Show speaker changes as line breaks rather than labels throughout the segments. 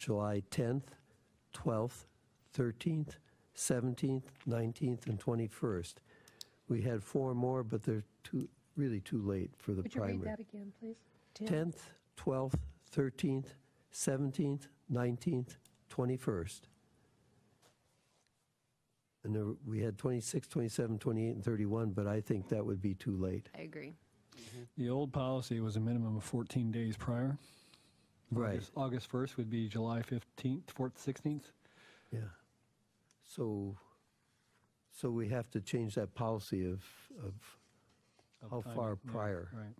July 10th, 12th, 13th, 17th, 19th, and 21st. We had four more, but they're too, really too late for the
Would you read
primary.
that again, please?
10th, 12th, 13th, 17th, 19th, 21st. And there, were- we had 26, 27, 28, and 31, but I think that would be too late.
I agree.
The old policy was a minimum of 14 days prior.
Right.
August- August 1st would be July 15th, 4th, 16th.
Yeah. So, so we have to change that policy of, of
of
how
time.
far
Yeah,
prior,
Right.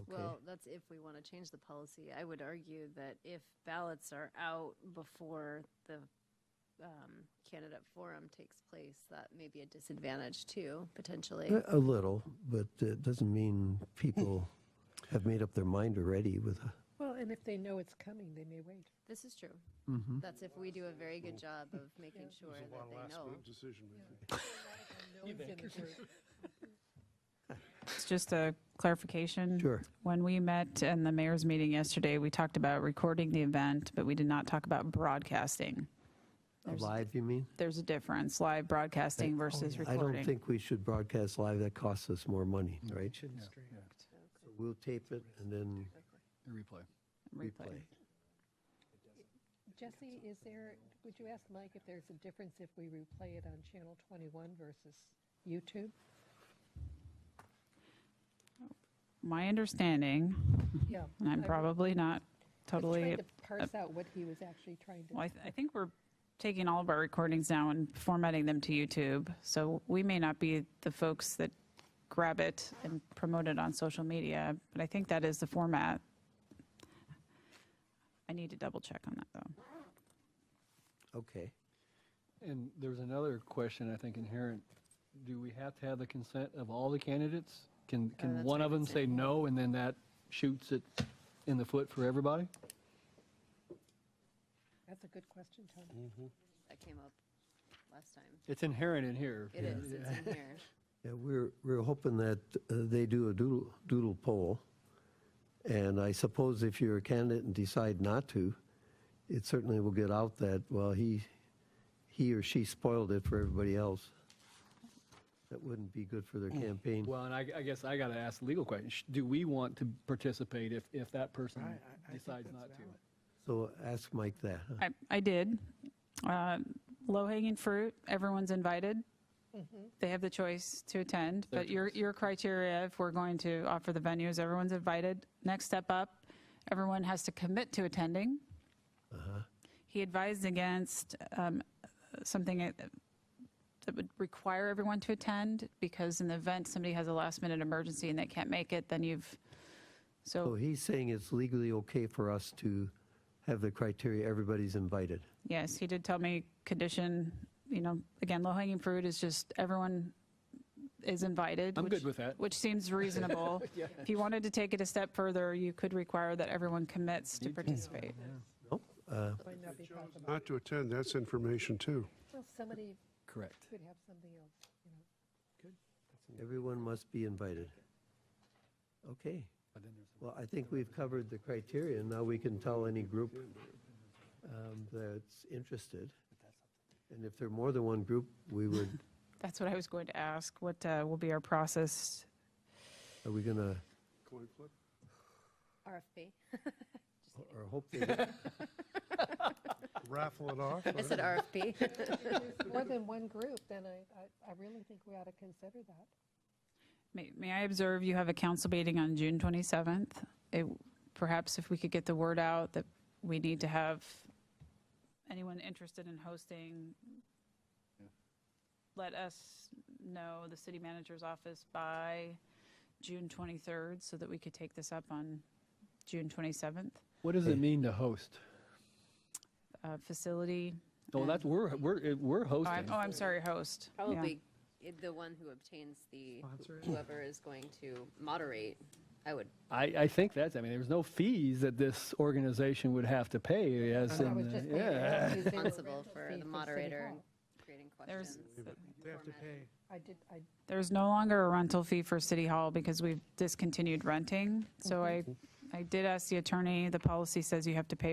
okay?
Well, that's if we want to change the policy. I would argue that if ballots are out before the um, candidate forum takes place, that may be a disadvantage too, potentially.
Uh, A- A little, but it doesn't mean people have made up their mind already with, a-
Well, and if they know it's coming, they may wait.
This is true. That's if we do a very good job of making sure that they know.
decision making.
It's just a clarification.
Sure.
When we met in the mayor's meeting yesterday, we talked about recording the event, but we did not talk about broadcasting.
live, you mean?
There's a difference, live broadcasting versus
I don't
recording. Mm.
think we should broadcast live, that costs us more money, right? So We'll tape it and then
The replay.
replay.
Jesse, is there, would you ask Mike if there's a difference if we replay it on Channel 21 versus YouTube?
My understanding,
Yeah.
and I'm
I
probably not
was
totally,
trying to parse out what he was actually trying
well, I,
to,
th- I think we're taking all of our recordings now and formatting them to YouTube. So we may not be the folks that grab it and promote it on social media, but I think that is the format. I need to double check on that though.
Okay.
And there's another question I think inherent. Do we have to have the consent of all the candidates? Can, can
that's
one
what
of
I
them
would
say no and then that shoots it in the foot for everybody?
that's a good question, Tom.
That came up last time.
It's inherent in here.
It is, it's in here.
Yeah, we're, we're hoping that uh, they do a doodle, doodle poll. And I suppose if you're a candidate and decide not to, it certainly will get out that, well, he, he or she spoiled it for everybody else. That wouldn't be good for their campaign.
Well, and I, I guess I got to ask the legal question. Sh- Do we want to participate if, if that person decides not to?
So ask Mike that. huh?
I, I did. Uh, Low hanging fruit, everyone's invited. They have the choice to attend,
Their
but your, your criteria, if we're going to offer the venues, everyone's invited. Next step up, everyone has to commit to attending. He advised against um, something that that would require everyone to attend because in the event somebody has a last minute emergency and they can't make it, then you've,
So
so,
he's saying it's legally okay for us to have the criteria, everybody's invited.
yes, he did tell me condition, you know, again, low hanging fruit is just everyone is invited.
I'm
which-
good with that.
Which seems reasonable. If you wanted to take it a step further, you could require that everyone commits to participate.
Nope. uh,
Might not be possible.
Not to attend, that's information too.
Well, somebody
Correct.
could have something else, you know.
Everyone must be invited. Okay. Well, I think we've covered the criteria, and now we can tell any group um, that's interested. And if there are more than one group, we would,
That's what I was going to ask. What uh, will be our process?
are we gonna,
Coin flip?
RFP.
or hope they don't-
Raffle it off?
I said RFP.
More than one group, then I, I, I really think we ought to consider that.
May may I observe you have a council meeting on June 27th? It- Perhaps if we could get the word out that we need to have anyone interested in hosting, let us know, the city manager's office, by June 23rd, so that we could take this up on June 27th.
What does it mean to host?
Uh, Facility,
Oh, that's, we're, we're, we're
oh,
hosting.
I'm oh, I'm sorry, host. Yeah.
Probably i- the one who obtains the, whoever is going to moderate, I would,
I, I think that's, I mean, there's no fees that this organization would have to pay as
I
in,
was
the-
just thinking
yeah.
about using the
responsible
rental
for
fee
the
City
moderator
Hall.
creating
There's-
questions.
They have to pay.
I did, I,
There's no longer a rental fee for City Hall because we've discontinued renting. So I, I did ask the attorney, the policy says you have to pay